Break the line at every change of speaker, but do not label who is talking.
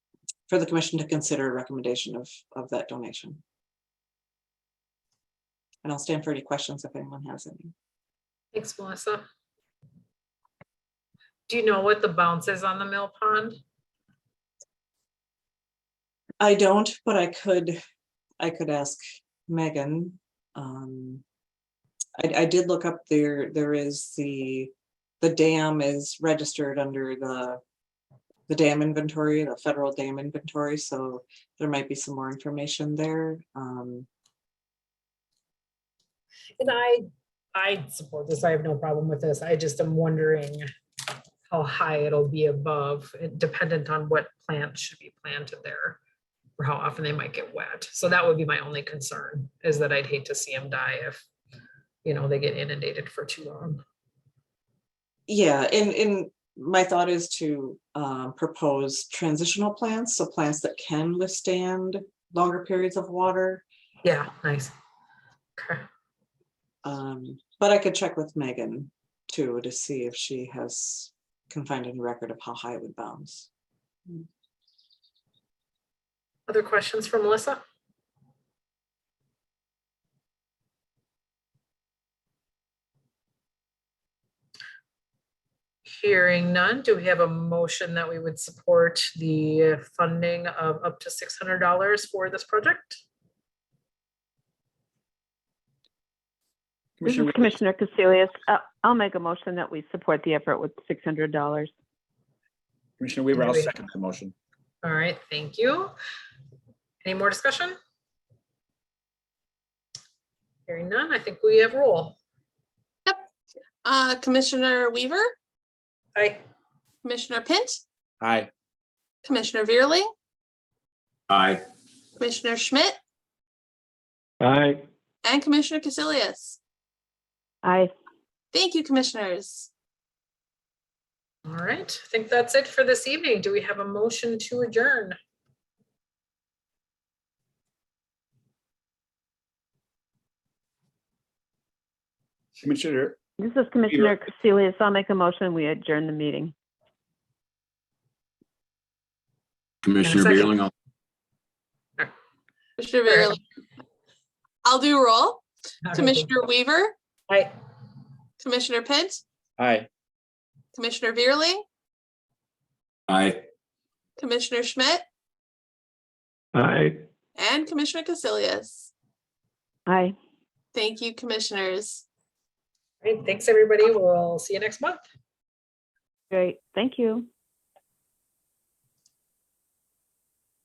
for the commission to consider a recommendation of, of that donation. And I'll stand for any questions if anyone has any.
Thanks, Melissa. Do you know what the bounce is on the mill pond?
I don't, but I could, I could ask Megan. Um, I, I did look up there, there is the, the dam is registered under the, the dam inventory, the federal dam inventory, so there might be some more information there. Um,
And I, I support this. I have no problem with this. I just am wondering how high it'll be above, it dependent on what plants should be planted there or how often they might get wet. So that would be my only concern is that I'd hate to see them die if, you know, they get inundated for too long.
Yeah, and, and my thought is to um, propose transitional plants, so plants that can withstand longer periods of water.
Yeah, nice. Okay.
Um, But I could check with Megan too, to see if she has, can find any record of how high it would bounce.
Other questions for Melissa? Hearing none, do we have a motion that we would support the funding of up to six hundred dollars for this project?
This is
Commissioner, Wea-
Commissioner Casilius. Uh, I'll make a motion that we support the effort with six hundred dollars.
Commissioner Weaver, I'll
Wea-
second that motion.
All right, thank you. Any more discussion? Hearing none, I think we have roll.
Uh, Commissioner Weaver,
Aye.
Commissioner Pint,
Aye.
Commissioner Veerley,
Aye.
Commissioner Schmidt,
Aye.
and Commissioner Casilius.
I
Thank you, commissioners.
All right, I think that's it for this evening. Do we have a motion to adjourn?
Commissioner,
This is Commissioner Casilius. I'll make a motion. We adjourn the meeting.
Commissioner
second.
Beerling, I'll-
Commissioner
Sure.
Veerley. I'll do roll. Commissioner Weaver,
Aye.
Commissioner Pint,
aye.
Commissioner Veerley,
aye.
Commissioner Schmidt,
Aye.
and Commissioner Casilius.
Aye.
Thank you, commissioners.
All right, thanks, everybody. We'll see you next month.
Great. Thank you.